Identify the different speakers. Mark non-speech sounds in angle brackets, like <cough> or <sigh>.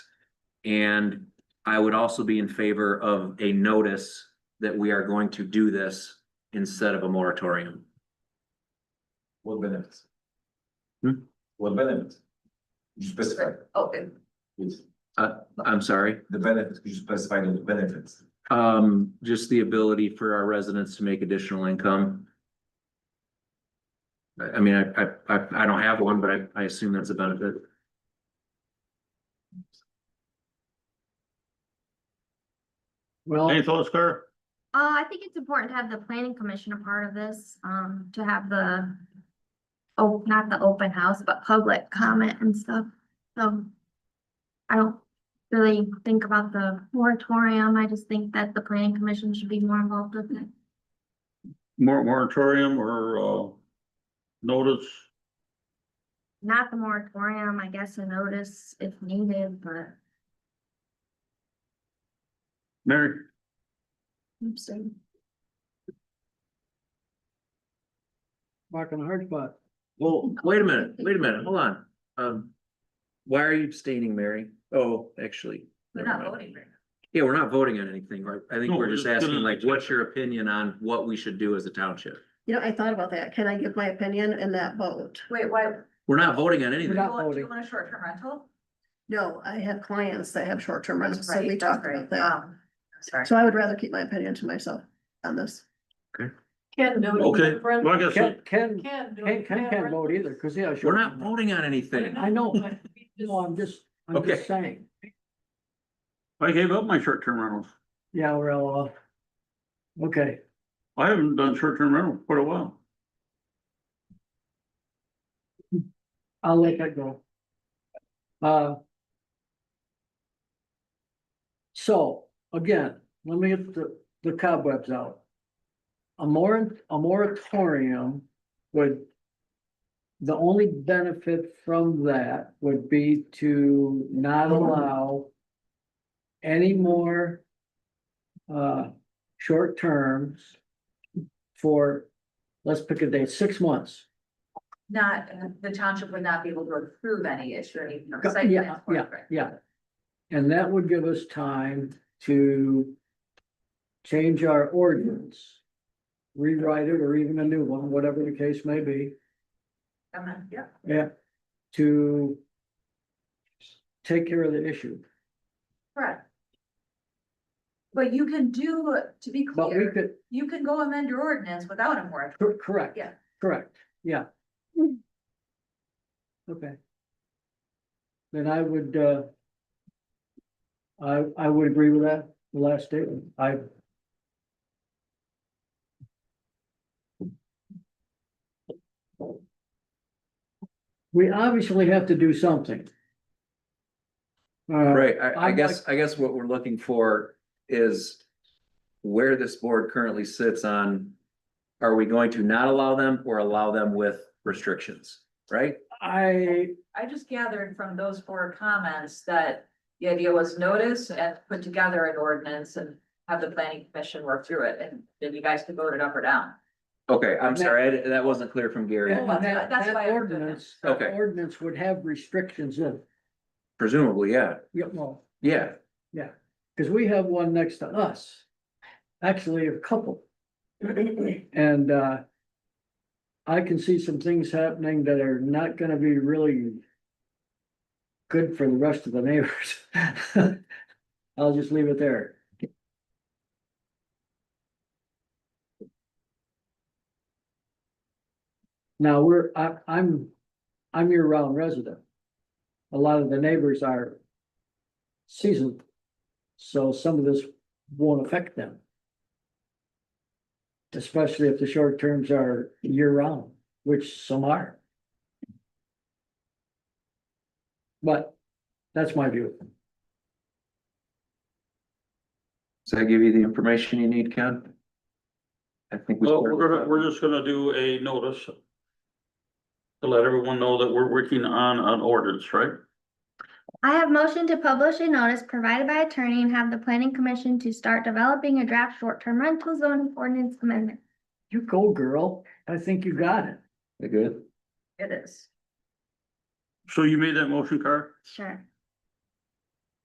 Speaker 1: And I would also be in favor of a notice that we are going to do this instead of a moratorium.
Speaker 2: What benefits?
Speaker 1: Hmm?
Speaker 2: What benefits? You specify,
Speaker 3: open.
Speaker 2: please,
Speaker 1: I'm sorry,
Speaker 2: the benefits, you specify the benefits.
Speaker 1: um, just the ability for our residents to make additional income. I, I mean, I, I- I, I don't have one, but I, I assume that's a benefit.
Speaker 4: Well,
Speaker 5: Any thoughts, Kurt?
Speaker 6: Uh, I think it's important to have the planning commission a part of this, um, to have the. Oh, not the open house, but public comment and stuff, so. I don't really think about the moratorium, I just think that the planning commission should be more involved with it.
Speaker 5: Mor- Moratorium or, uh, notice?
Speaker 6: Not the moratorium, I guess a notice if needed, but.
Speaker 5: Mary,
Speaker 4: Mark on a hard spot.
Speaker 1: Well, wait a minute, wait a minute, hold on. Um, why are you abstaining, Mary? Oh, actually.
Speaker 3: We're
Speaker 1: never
Speaker 3: not
Speaker 1: mind.
Speaker 3: voting right
Speaker 1: Yeah, we're not voting on anything, right? I think
Speaker 5: No,
Speaker 1: we're
Speaker 5: we're
Speaker 1: just
Speaker 5: just
Speaker 1: asking
Speaker 5: gonna-
Speaker 1: like, what's your opinion on what we should do as a township?
Speaker 7: You know, I thought about that. Can I give my opinion in that vote?
Speaker 3: now. Wait, why, do
Speaker 1: We're not voting on
Speaker 4: We're
Speaker 1: anything.
Speaker 3: you
Speaker 4: not
Speaker 3: want, do you
Speaker 4: voting.
Speaker 3: want a short-term rental?
Speaker 7: No, I have clients that have short-term rentals, so
Speaker 3: Right,
Speaker 7: we
Speaker 3: that's
Speaker 7: talked
Speaker 3: right.
Speaker 7: about that.
Speaker 3: Um, Sorry.
Speaker 7: So I would rather keep my opinion to myself on this.
Speaker 8: Can do. it.
Speaker 5: Okay, well, I guess,
Speaker 4: Ken,
Speaker 5: it-
Speaker 4: Ken,
Speaker 8: Can do.
Speaker 4: Ken,
Speaker 8: it.
Speaker 4: Ken can't vote either, cause yeah.
Speaker 1: We're not voting on anything.
Speaker 4: I <laughs> know, but, no, I'm just, I'm
Speaker 1: Okay.
Speaker 4: just saying,
Speaker 5: I gave up my short-term rentals.
Speaker 4: yeah, well, uh, okay,
Speaker 5: I haven't done short-term rental for a while.
Speaker 4: I'll let that go. Uh. So, again, let me get the, the cobwebs out. A mor- a moratorium would. The only benefit from that would be to not allow. Any more. Uh, short terms. For, let's pick a date, six months.
Speaker 3: Not, the township would not be able to approve any issue, or any.
Speaker 4: Go-
Speaker 3: site
Speaker 4: Yeah,
Speaker 3: plan for
Speaker 4: yeah,
Speaker 3: it, right?
Speaker 4: yeah. And that would give us time to change our ordinance, rewrite it or even a new one, whatever the case may be,
Speaker 3: I'm not- Yeah,
Speaker 4: yeah, to take care of the issue.
Speaker 3: correct. But you can do, to be
Speaker 4: But we
Speaker 3: clear,
Speaker 4: could,
Speaker 3: you can go amend your ordinance without a moratorium.
Speaker 4: cor- correct.
Speaker 3: Yeah.
Speaker 4: Correct, yeah. Okay. Then I would, uh, I, I would agree with that, the last statement. I, we obviously have to do something. Uh,
Speaker 1: Right, I, I
Speaker 4: I'd
Speaker 1: guess, I guess what we're looking for is where this board currently sits on, are we going to not allow them or allow them with restrictions, right?
Speaker 4: I,
Speaker 3: I just gathered from those four comments that the idea was notice and put together an ordinance and have the planning commission work through it, and then you guys could vote it up or down.
Speaker 1: Okay, I'm
Speaker 4: And that-
Speaker 1: sorry, I di- that wasn't clear from Gary.
Speaker 4: and that,
Speaker 3: that's
Speaker 4: that
Speaker 3: why I would do that.
Speaker 4: ordinance, that
Speaker 1: Okay.
Speaker 4: ordinance would have restrictions in, it.
Speaker 1: Presumably, yeah,
Speaker 4: yeah, well.
Speaker 1: yeah,
Speaker 4: Cause we have one next to us, actually a couple. And, uh. I can see some things happening that are not gonna be really. Good for the rest of the neighbors. <laughs> I'll just leave it there. Now, we're, I, I'm, I'm year-round resident. A lot of the neighbors are. Seasoned. So some of this won't affect them. Especially if the short terms are year round, which some are. But that's my view.
Speaker 1: does that give you the information you need, Ken? I think. we
Speaker 5: Well, we're gonna, we're just gonna do a notice. To let everyone know that we're working on an ordinance, right?
Speaker 6: I have motion to publish a notice provided by attorney and have the planning commission to start developing a draft short-term rental zoning ordinance amendment.
Speaker 4: You go, girl. I think you got it.
Speaker 1: You Good,
Speaker 3: It is.
Speaker 5: So you made that motion, Carl?
Speaker 6: Sure.